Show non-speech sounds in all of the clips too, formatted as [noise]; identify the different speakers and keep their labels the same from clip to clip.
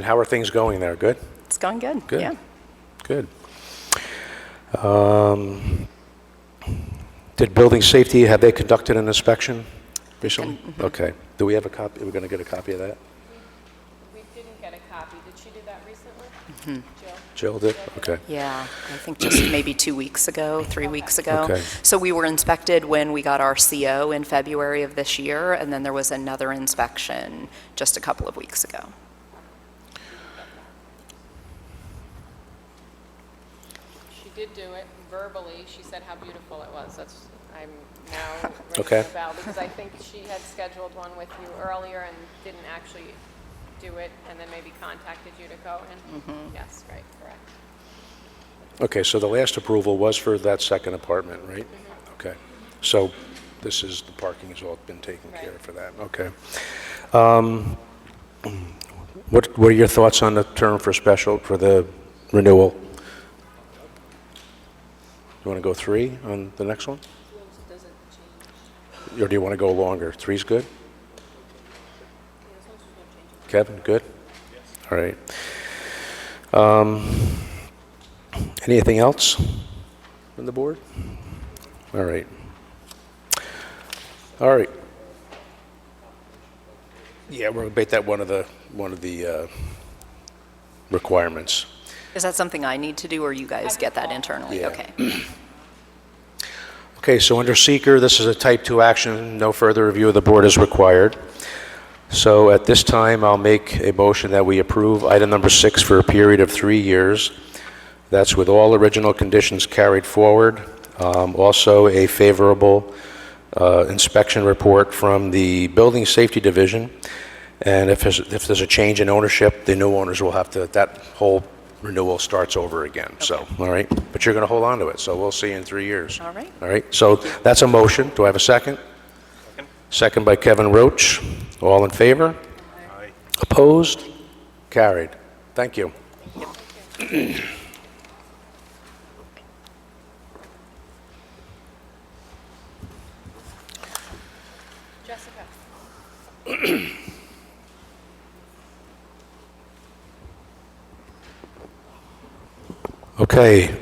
Speaker 1: And how are things going there? Good?
Speaker 2: It's gone good.
Speaker 1: Good.
Speaker 2: Yeah.
Speaker 1: Good. Um, Did building safety, have they conducted an inspection recently? Okay. Do we have a copy, are we going to get a copy of that?
Speaker 3: We didn't get a copy. Did she do that recently? Jill?
Speaker 1: Jill did? Okay.
Speaker 2: Yeah, I think just [clears throat] maybe two weeks ago, three weeks ago.
Speaker 1: Okay.
Speaker 2: So we were inspected when we got our CO in February of this year, and then there was another inspection just a couple of weeks ago.
Speaker 3: She did do it verbally. She said how beautiful it was. That's, I'm [laughs] now
Speaker 1: Okay.
Speaker 3: ringing the bell because I think she had scheduled one with you earlier and didn't actually do it and then maybe contacted you to go in. Yes, right, correct.
Speaker 1: Okay, so the last approval was for that second apartment, right? Okay. So this is, the parking has all been taken care of for that, okay. Um, What were your thoughts on the term for special, for the renewal? You want to go three on the next one? Or do you want to go longer? Three's good? Kevin, good? All right. Anything else from the board? All right. All right. Yeah, we're going to make that one of the, one of the uh, requirements.
Speaker 2: Is that something I need to do, or you guys get that internally?
Speaker 1: Yeah.
Speaker 2: Okay.
Speaker 1: Okay, so under seeker, this is a type 2 action, no further review of the board is required. So at this time, I'll make a motion that we approve item number 6 for a period of 3 years. That's with all original conditions carried forward, Um, also a favorable uh, inspection report from the Building Safety Division, and if there's, if there's a change in ownership, the new owners will have to, that whole renewal starts over again, so, all right? But you're going to hold on to it, so we'll see you in 3 years.
Speaker 2: All right.
Speaker 1: All right, so that's a motion. Do I have a second? Second by Kevin Roach. All in favor? Opposed? Carried. Thank you.
Speaker 3: Jessica?
Speaker 1: Okay,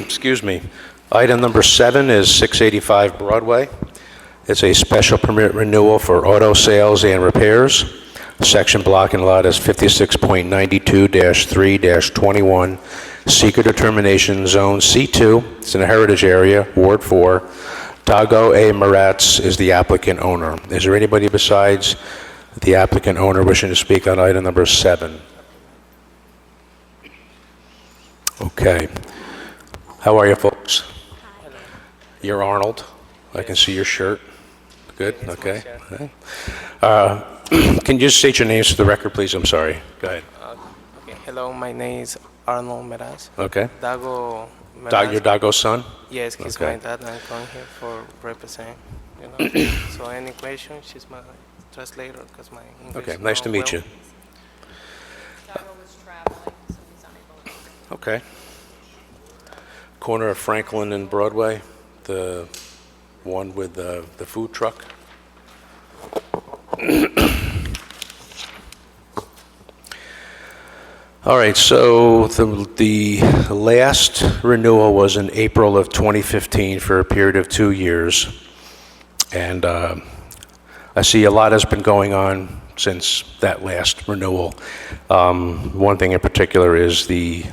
Speaker 1: [clears throat] excuse me. Item number seven is 685 Broadway. It's a special permit renewal for auto sales and repairs. Section block and lot is 56.92-3-21, seeker determination, Zone C2. It's in a heritage area, Ward 4. Dago A. Maratz is the applicant owner. Is there anybody besides the applicant owner wishing to speak on item number seven? Okay. How are you folks? You're Arnold. I can see your shirt. Good, okay. Okay. Uh, [clears throat] Can you state your names for the record, please? I'm sorry. Go ahead.
Speaker 4: Okay, hello, my name is Arnold Meraz.
Speaker 1: Okay.
Speaker 4: Dago Meraz.
Speaker 1: Doc- Your Dago's son?
Speaker 4: Yes, he's
Speaker 1: Okay.
Speaker 4: my dad. I'm coming here for represent. You
Speaker 1: [clears throat]
Speaker 4: know. so any question, she's my translator because my English.
Speaker 1: Okay, nice
Speaker 4: not
Speaker 1: to meet
Speaker 4: well.
Speaker 1: you.
Speaker 3: Doug was traveling, so he's unable to.
Speaker 1: Okay. Corner of Franklin and Broadway, the one with the the food truck. [clears throat] All right, so the the last renewal was in April of 2015 for a period of two years. And um, I see a lot has been going on since that last renewal. Um, One thing in particular is the,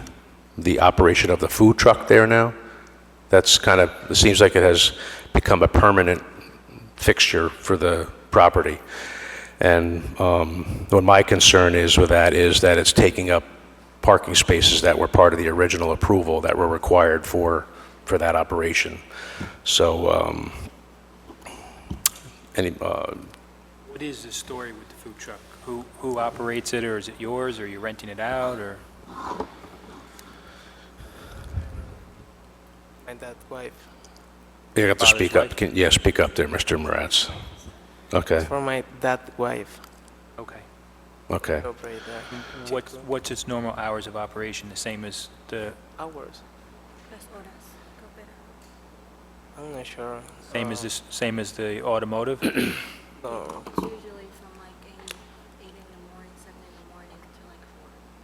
Speaker 1: the operation of the food truck there now. That's kind of, it seems like it has become a permanent fixture for the property. And um, what my concern is with that is that it's taking up parking spaces that were part of the original approval that were required for, for that operation. So, um, any, uh,
Speaker 5: What is the story with the food truck? Who, who operates it, or is it yours, or you are renting it out, or?
Speaker 4: My dad wife.
Speaker 1: You have to
Speaker 5: Father's
Speaker 1: speak up.
Speaker 5: wife.
Speaker 1: Can, yeah, speak up there, Mr. Moretz. Okay,
Speaker 4: For my dad wife,
Speaker 5: Okay.
Speaker 1: okay.
Speaker 4: operate there.
Speaker 5: What's, what's its normal hours of operation, the same as the,
Speaker 4: Hours.
Speaker 6: las horas que opera.
Speaker 4: I'm not sure.
Speaker 5: same as
Speaker 4: Uh,
Speaker 5: this, same as the automotive?
Speaker 4: No,
Speaker 6: Sí, yo